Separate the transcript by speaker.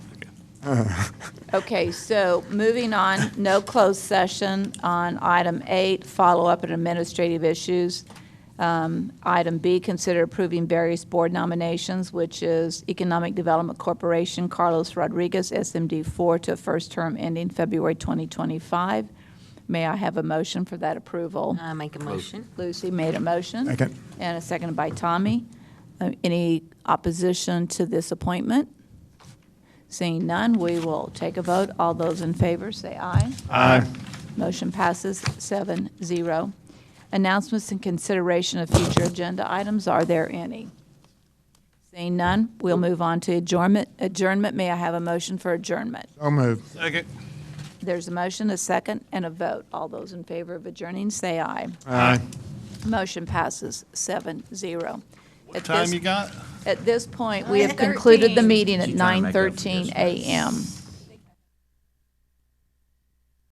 Speaker 1: Okay, so moving on, no closed session on item eight, follow-up and administrative issues. Um, Item B, consider approving various board nominations, which is Economic Development Corporation, Carlos Rodriguez, SMD four, to a first term ending February 2025. May I have a motion for that approval?
Speaker 2: I Uh, make a motion.
Speaker 1: Lucy made a motion.
Speaker 3: Second.
Speaker 1: And a second by Tommy. Uh, Any opposition to this appointment? Seeing none, we will take a vote. All those in favor, say aye.
Speaker 3: Aye.
Speaker 1: Motion passes seven zero. Announcements and consideration of future agenda items, are there any? Seeing none, we'll move on to adjournment. Adjournment, may I have a motion for adjournment?
Speaker 3: So moved.
Speaker 4: Second.
Speaker 1: There's a motion, a second, and a vote. All those in favor of adjourning, say aye.
Speaker 3: Aye.
Speaker 1: Motion passes seven zero. At
Speaker 4: Time
Speaker 1: this-
Speaker 4: you got?
Speaker 1: At this point, we have concluded the
Speaker 2: 9:13.
Speaker 1: meeting at
Speaker 5: She's trying to
Speaker 1: nine
Speaker 5: make up for
Speaker 1: thirteen
Speaker 5: yesterday.
Speaker 1: AM.